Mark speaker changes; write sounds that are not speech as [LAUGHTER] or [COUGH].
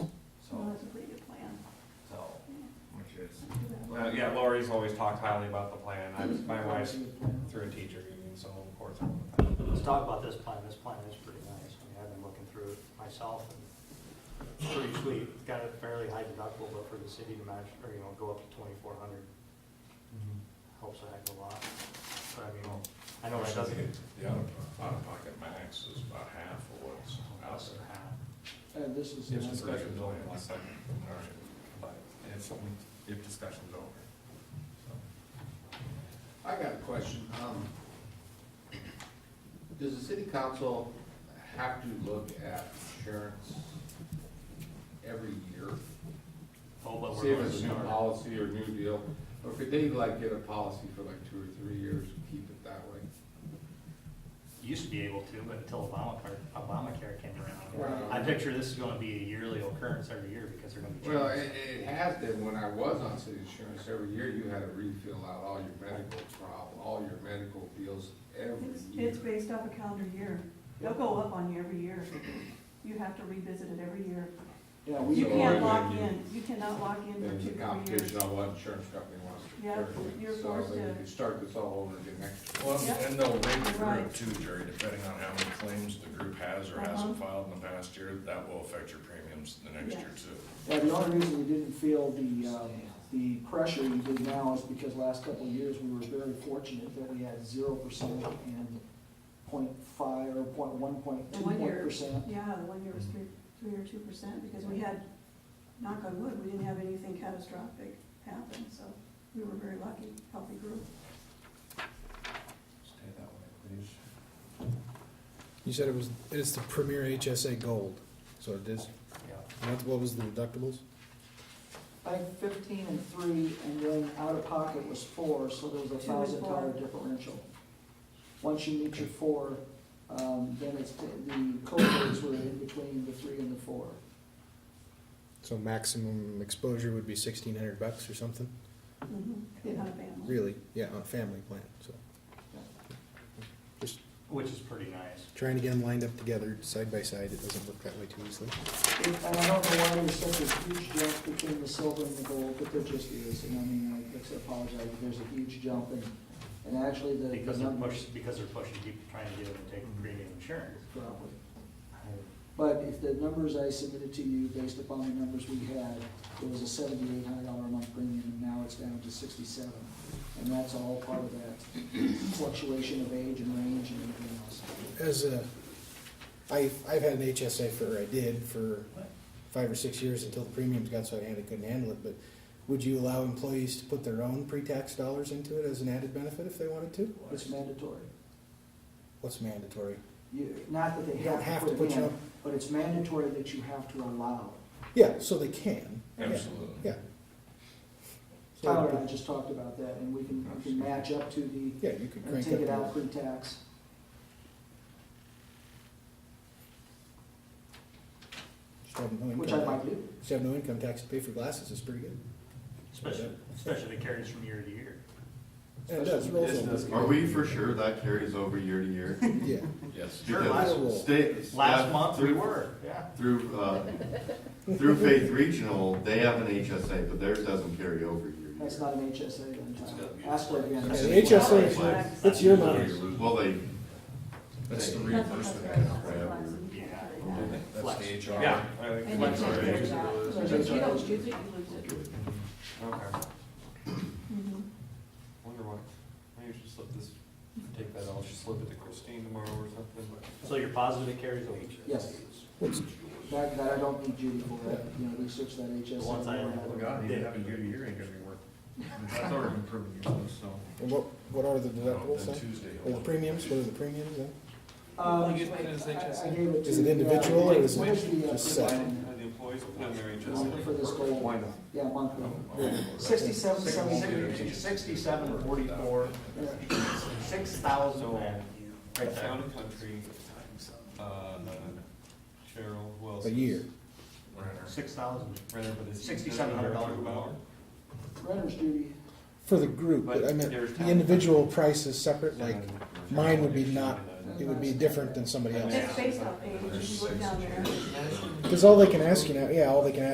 Speaker 1: uh, Lori's always talked highly about the plan, I was, my wife's through a teacher union, so of course. I'm a fan.
Speaker 2: Let's talk about this plan, this plan is pretty nice, I mean, I've been looking through it myself, and it's pretty sweet, it's got a fairly high deductible, but for the city to match, or, you know, go up to twenty-four hundred,
Speaker 3: Mm-hmm.
Speaker 2: helps a heck of a lot, but I mean, I know that doesn't.
Speaker 3: The out of, out of pocket max is about half of what's out there.
Speaker 4: And uh, this is.
Speaker 3: If
Speaker 4: another-
Speaker 3: discussion's over, one second, all right, but if something, if discussion's over. so.
Speaker 5: I got a question. Um, Does the city council have to look at insurance every year?
Speaker 2: Oh, but
Speaker 5: See
Speaker 2: we're going
Speaker 5: if
Speaker 2: to
Speaker 5: it's a new
Speaker 2: start.
Speaker 5: policy or new deal, or could they like get a policy for like two or three years and keep it that way?
Speaker 2: Used to be able to, but until Obamacare, Obamacare came around.
Speaker 5: Right.
Speaker 2: I picture this is gonna be a yearly occurrence every year, because they're gonna be.
Speaker 5: Well,
Speaker 2: changing.
Speaker 5: it, it has been, when I was on city insurance, every year you had to refill out all your medical problem, all your medical bills every
Speaker 6: It's,
Speaker 5: year.
Speaker 6: it's based off a calendar year. They'll go up on you every year. You have to revisit it every year.
Speaker 4: Yeah,
Speaker 6: You
Speaker 5: So
Speaker 4: we,
Speaker 6: can't
Speaker 5: when
Speaker 6: lock
Speaker 5: you-
Speaker 6: in, you cannot lock in for
Speaker 5: There's a
Speaker 6: two, three years.
Speaker 5: competition on what insurance company wants to.
Speaker 6: Yeah,
Speaker 5: carry.
Speaker 6: you're forced
Speaker 5: So
Speaker 6: to-
Speaker 5: they could start this all over again next year.
Speaker 3: Well,
Speaker 6: Yep.
Speaker 3: and they'll rate the group
Speaker 6: Right.
Speaker 3: too, Jerry, depending on how many claims the group has or hasn't
Speaker 6: Uh-huh.
Speaker 3: filed in the past year, that will affect your premiums the next year
Speaker 6: Yes.
Speaker 3: too.
Speaker 4: yeah, the only reason we didn't feel the, um, the pressure you did now is because last couple of years, we were very fortunate that we had zero percent and point five, or point one, point
Speaker 6: The
Speaker 4: two,
Speaker 6: one
Speaker 4: point
Speaker 6: year-
Speaker 4: percent.
Speaker 6: Yeah, the one year was three, three or two percent, because we had, knock on wood, we didn't have anything catastrophic happen, so we were very lucky, healthy group.
Speaker 3: Stay that way, please.
Speaker 7: You said it was, it's the Premier HSA Gold, so it is,
Speaker 2: Yeah.
Speaker 7: what, what was the deductibles?
Speaker 4: I think fifteen and three, and then out of pocket was four, so there was a
Speaker 6: Two and
Speaker 4: thousand dollar
Speaker 6: four.
Speaker 4: differential. Once you meet your four, um, then it's, the co-pays were in between the three and the four.
Speaker 7: So maximum exposure would be sixteen hundred bucks or something,
Speaker 6: Mhm. Did have a family.
Speaker 7: really, yeah, on a family plan, so. Just
Speaker 2: Which is pretty nice.
Speaker 7: trying to get them lined up together, side by side, it doesn't work that way too easily.
Speaker 4: And I don't know why there's such a huge jump between the silver and the gold, but there just is, and I mean, I just apologize, but there's a huge jump, and, and actually the. the
Speaker 2: Because they're
Speaker 4: numbers-
Speaker 2: pushing, because they're pushing people, trying to get them to take premium insurance.
Speaker 4: Probably. But if the numbers I submitted to you, based upon the numbers we had, it was a seventy-eight hundred dollar a month premium, and now it's down to sixty-seven. And that's all part of that fluctuation of age and range and everything else.
Speaker 7: As a, I've, I've had an HSA for, I did for five or six years until the premiums got so I had, couldn't handle it, but would you allow employees to put their own pre-tax dollars into it as an added benefit if they wanted to?
Speaker 4: It's mandatory.
Speaker 7: What's mandatory?
Speaker 4: You, not that they
Speaker 7: You don't
Speaker 4: have to put it
Speaker 7: your
Speaker 4: in,
Speaker 7: own-
Speaker 4: but it's mandatory that you have to allow.
Speaker 7: Yeah, so they can. Yeah,
Speaker 3: Absolutely.
Speaker 7: Yeah. uh, Oh,
Speaker 4: Tyler and I just talked about that, and we can, we can match up to the,
Speaker 7: Yeah, you could
Speaker 4: and
Speaker 7: crank
Speaker 4: take it out
Speaker 7: up. your-
Speaker 4: pre-tax.
Speaker 7: Just have no
Speaker 4: Which I
Speaker 7: income-
Speaker 4: might do.
Speaker 7: Just have no income tax to pay for glasses is pretty good.
Speaker 2: Especially, especially if it carries from year to year.
Speaker 7: And it does, it rolls
Speaker 3: Business.
Speaker 7: over.
Speaker 8: Are we for sure that carries over year to year?
Speaker 7: Yeah.
Speaker 3: [LAUGHS] Yes.
Speaker 2: Sure,
Speaker 8: Because
Speaker 7: last-
Speaker 8: state-
Speaker 2: Last
Speaker 8: staff
Speaker 2: month, we
Speaker 8: through-
Speaker 2: were, yeah.
Speaker 8: Through, uh, through Faith Regional, they have an HSA, but theirs doesn't carry over year to
Speaker 4: That's
Speaker 8: year.
Speaker 4: not an HSA then, Tyler.
Speaker 3: gotta be-
Speaker 4: Ask her again.
Speaker 7: Yeah, the HSA, is-
Speaker 8: Like,
Speaker 7: it's your money.
Speaker 8: Well, they,
Speaker 3: That's the
Speaker 6: That's what I was
Speaker 3: reimbursement.
Speaker 6: saying, that's
Speaker 8: right.
Speaker 6: what I was saying.
Speaker 2: Yeah.
Speaker 3: That's the HR.
Speaker 1: Yeah, I
Speaker 6: And
Speaker 1: think,
Speaker 6: you
Speaker 8: Like,
Speaker 6: can't
Speaker 8: sorry.
Speaker 6: change that.
Speaker 4: That's
Speaker 6: If you don't
Speaker 4: right.
Speaker 6: choose it, you lose it.
Speaker 1: okay,
Speaker 6: Mhm.
Speaker 1: wonder what, maybe we should slip this, take that, I'll just slip it to Christine tomorrow or something, but.
Speaker 2: So you're positive it carries over?
Speaker 4: Yes.
Speaker 7: What's-
Speaker 4: That, that I don't need Judy for, that, you know, research that HSA.
Speaker 2: The ones I have.
Speaker 3: Well, God, you have a year to year ain't gonna be worth. That's already been proven useless, so.
Speaker 7: And what, what are the
Speaker 3: No,
Speaker 7: deductibles
Speaker 3: Oh, then
Speaker 7: then?
Speaker 3: Tuesday.
Speaker 7: Or the premiums, what are the premiums then?
Speaker 4: Um,
Speaker 6: Like, what is
Speaker 4: I- I- I
Speaker 6: HSA?
Speaker 4: gave it
Speaker 7: Is
Speaker 4: to-
Speaker 7: it individual
Speaker 4: yeah,
Speaker 7: or is it
Speaker 4: what the, uh,
Speaker 7: just set?
Speaker 1: Are the employees will put in their
Speaker 4: the one For
Speaker 1: HSA?
Speaker 4: this goal,
Speaker 1: not?
Speaker 4: yeah, monthly.
Speaker 2: Sixty-seven,
Speaker 4: Sixty-seven, seventy.
Speaker 2: seventy, sixty-seven, forty-four, six thousand. Right there.
Speaker 1: Town and country, uh, Cheryl, who else?
Speaker 7: A
Speaker 1: is-
Speaker 7: year.
Speaker 2: Six thousand.
Speaker 1: Renner for this.
Speaker 2: $6,700
Speaker 1: Thirty hour?
Speaker 4: Renter's duty,
Speaker 7: For the group, but I meant, the individual price is separate, like, mine would be not-
Speaker 1: uh,
Speaker 7: it would be different than somebody
Speaker 6: It's
Speaker 7: else's.
Speaker 6: based off age, if you look down there.
Speaker 8: [LAUGHS]
Speaker 7: Cause all they can ask you now, yeah, all they can ask